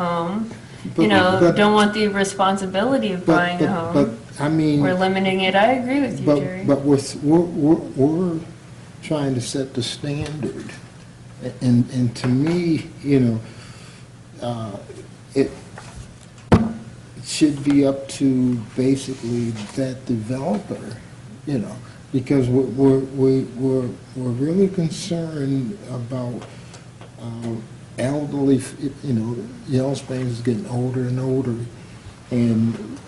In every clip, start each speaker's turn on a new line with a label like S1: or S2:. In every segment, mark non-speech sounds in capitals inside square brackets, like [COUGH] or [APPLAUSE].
S1: home.
S2: But-
S1: You know,
S2: but-
S1: don't want the responsibility of
S2: But,
S1: buying a
S2: but, but,
S1: home.
S2: I mean,
S1: We're limiting it, I agree with you, Jerry.
S2: but, but we're, s- we're, we're- we're trying to set the standard. And, and to me, you know, uh, it should be up to basically that developer, you know, because we're, we're, we- we're, we're really concerned about um, elderly, you know, Yellow Springs is getting older and older, and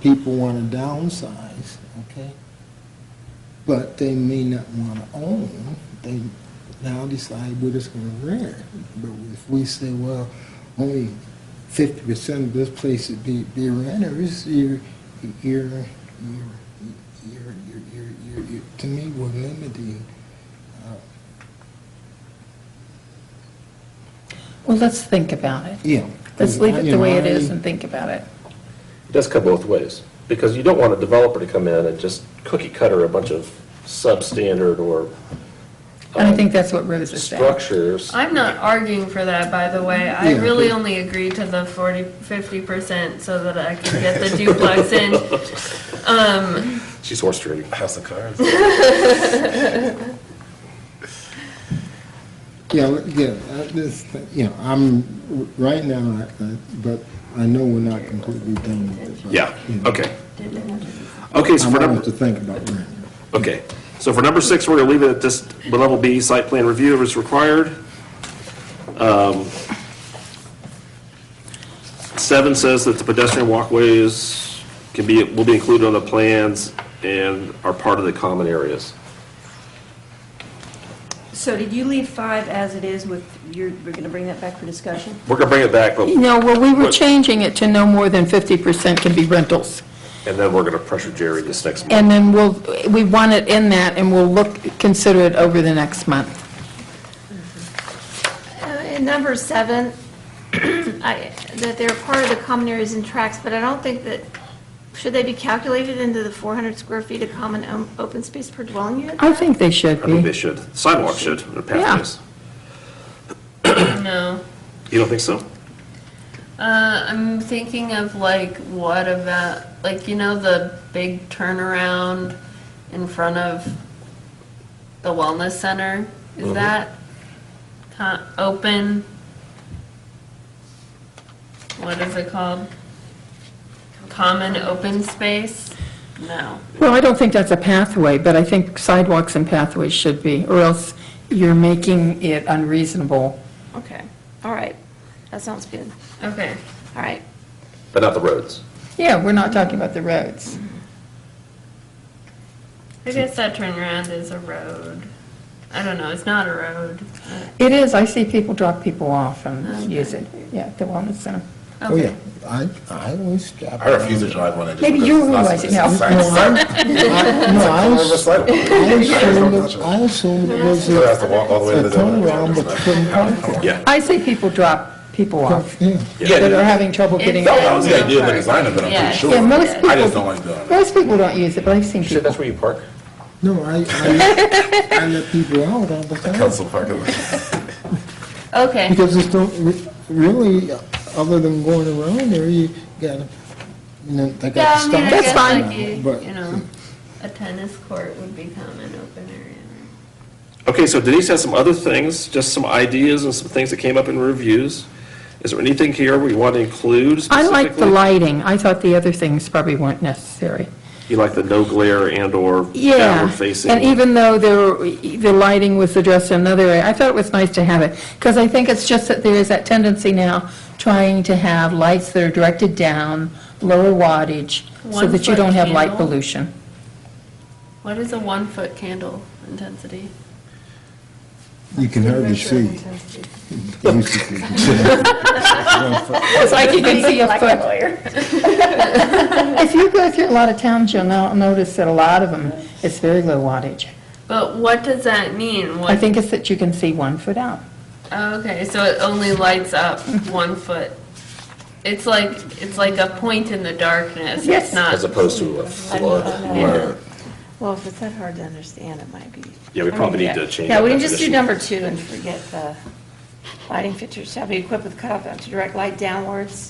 S2: people want to downsize, okay? But they may not want to own, they now decide we're just going to rent. But if we say, well, only fifty percent of this place would be, be renters, you're, you're, you're, you're, you're- you're, you're, you're- to me, we're limiting.
S3: Well, let's think about it.
S2: Yeah.
S3: Let's leave it the way it is
S2: You know,
S3: and think about it.
S4: It does cut both ways, because you don't want a developer to come in and just cookie cutter a bunch of substandard or um,
S3: And I think that's what Rose is saying.
S4: structures.
S1: I'm not arguing for that, by the way. I
S2: Yeah.
S1: really only agreed to the 40, 50% so that I could get the duplex in.
S4: She's horse trading.
S5: House of Cards.
S2: Yeah, l- yeah, I just, you know, I'm, right now, I- I- but I know we're not completely done with it. but,
S4: Yeah,
S2: you know,
S4: okay. Okay, so
S2: I'm
S4: for
S2: going to
S4: number,
S2: think about rent.
S4: okay, so for number six, we're gonna leave it at this, level B, site plan review is required. Um, Seven says that the pedestrian walkways can be, will be included on the plans and are part of the common areas.
S6: So did you leave five as it is with, you're, we're going to bring that back for discussion?
S4: We're gonna bring it back, but,
S3: No, well, we were
S4: What?
S3: changing it to no more than 50% can be rentals.
S4: and then we're gonna pressure Jerry this next month.
S3: And then we'll, we want it in that, and we'll look, consider it over the next month.
S7: Uh, In number seven, [CLEARS THROAT] I, that they're part of the common areas and tracks, but I don't think that, should they be calculated into the 400 square feet of common o- open space per dwelling unit?
S3: I think they should
S4: I think they
S3: be.
S4: should. Sidewalk should, or pathways.
S1: No.
S4: You don't think so?
S1: Uh, I'm thinking of like, what about, like, you know, the big turnaround in front of the wellness center? Is that co- open? What is it called? Common open space? No.
S3: Well, I don't think that's a pathway, but I think sidewalks and pathways should be, or else you're making it unreasonable.
S7: Okay, all right, that sounds good,
S1: Okay.
S7: all right.
S4: But not the roads.
S3: Yeah, we're not talking about the roads.
S1: I guess that turnaround is a road. I don't know, it's not a road.
S3: It is, I see people drop people off and use it, yeah, at the wellness center.
S2: Oh, yeah, I, I always stop.
S5: I refuse to drive one. I just-
S3: Maybe you realize it now.
S5: It's a sign. [LAUGHS]
S2: No, I,
S5: It's a
S2: was-
S5: sidewalk.
S2: I assumed, it-
S5: I
S2: I assumed it was
S5: don't have
S2: a
S5: to walk all the way to
S2: a
S5: the building.
S2: turnaround, but couldn't park it.
S4: Yeah.
S3: I see people drop people off
S2: Yeah,
S3: that are having trouble getting.
S1: Yeah.
S5: That was the idea of the design of it, I'm
S1: Yeah.
S5: pretty
S3: Yeah,
S5: sure.
S3: most people.
S5: I just don't like doing it.
S3: Most people don't use it, but I've seen
S4: You said
S3: people.
S4: that's where you park?
S2: no, I, I, I let people out all the time.
S5: Council parking lot.
S1: Okay.
S2: Because there's no, re- really, other than going around there, you gotta, you know, they
S1: Yeah,
S2: gotta
S1: I mean, I
S2: stop.
S1: guess
S3: fine.
S1: like you,
S2: But-
S1: you know, a tennis court would become an open area.
S4: Okay, so Denise has some other things, just some ideas and some things that came up in reviews. Is there anything here we want to include
S3: I
S4: specifically?
S3: like the lighting. I thought the other things probably weren't necessary.
S4: You like the no glare and/or
S3: Yeah,
S4: downward facing?
S3: and even though the, the lighting was addressed in another area, I thought it was nice to have it, because I think it's just that there is that tendency now, trying to have lights that are directed down, lower wattage, so
S1: One
S3: that
S1: foot
S3: you don't have light
S1: candle.
S3: pollution.
S1: What is a one-foot candle intensity?
S2: You can hardly see. Basically.
S3: It's like you can see a foot. [LAUGHS] If you go through a lot of towns, you'll now notice that a lot of them, it's very low wattage.
S1: But what does that mean? What-
S3: I think it's that you can see one foot out.
S1: Oh, Okay, so it only lights up one foot. It's like, it's like a point in the darkness. It's
S3: Yes.
S1: not,
S4: As opposed to a flood? or-
S6: Well, if it's that hard to understand, it might be.
S4: Yeah, we probably need to change
S6: Yeah,
S4: that
S6: we can just do
S4: definition.
S6: number two and forget the,
S7: Lighting fixtures shall be equipped with cutoff to direct light downwards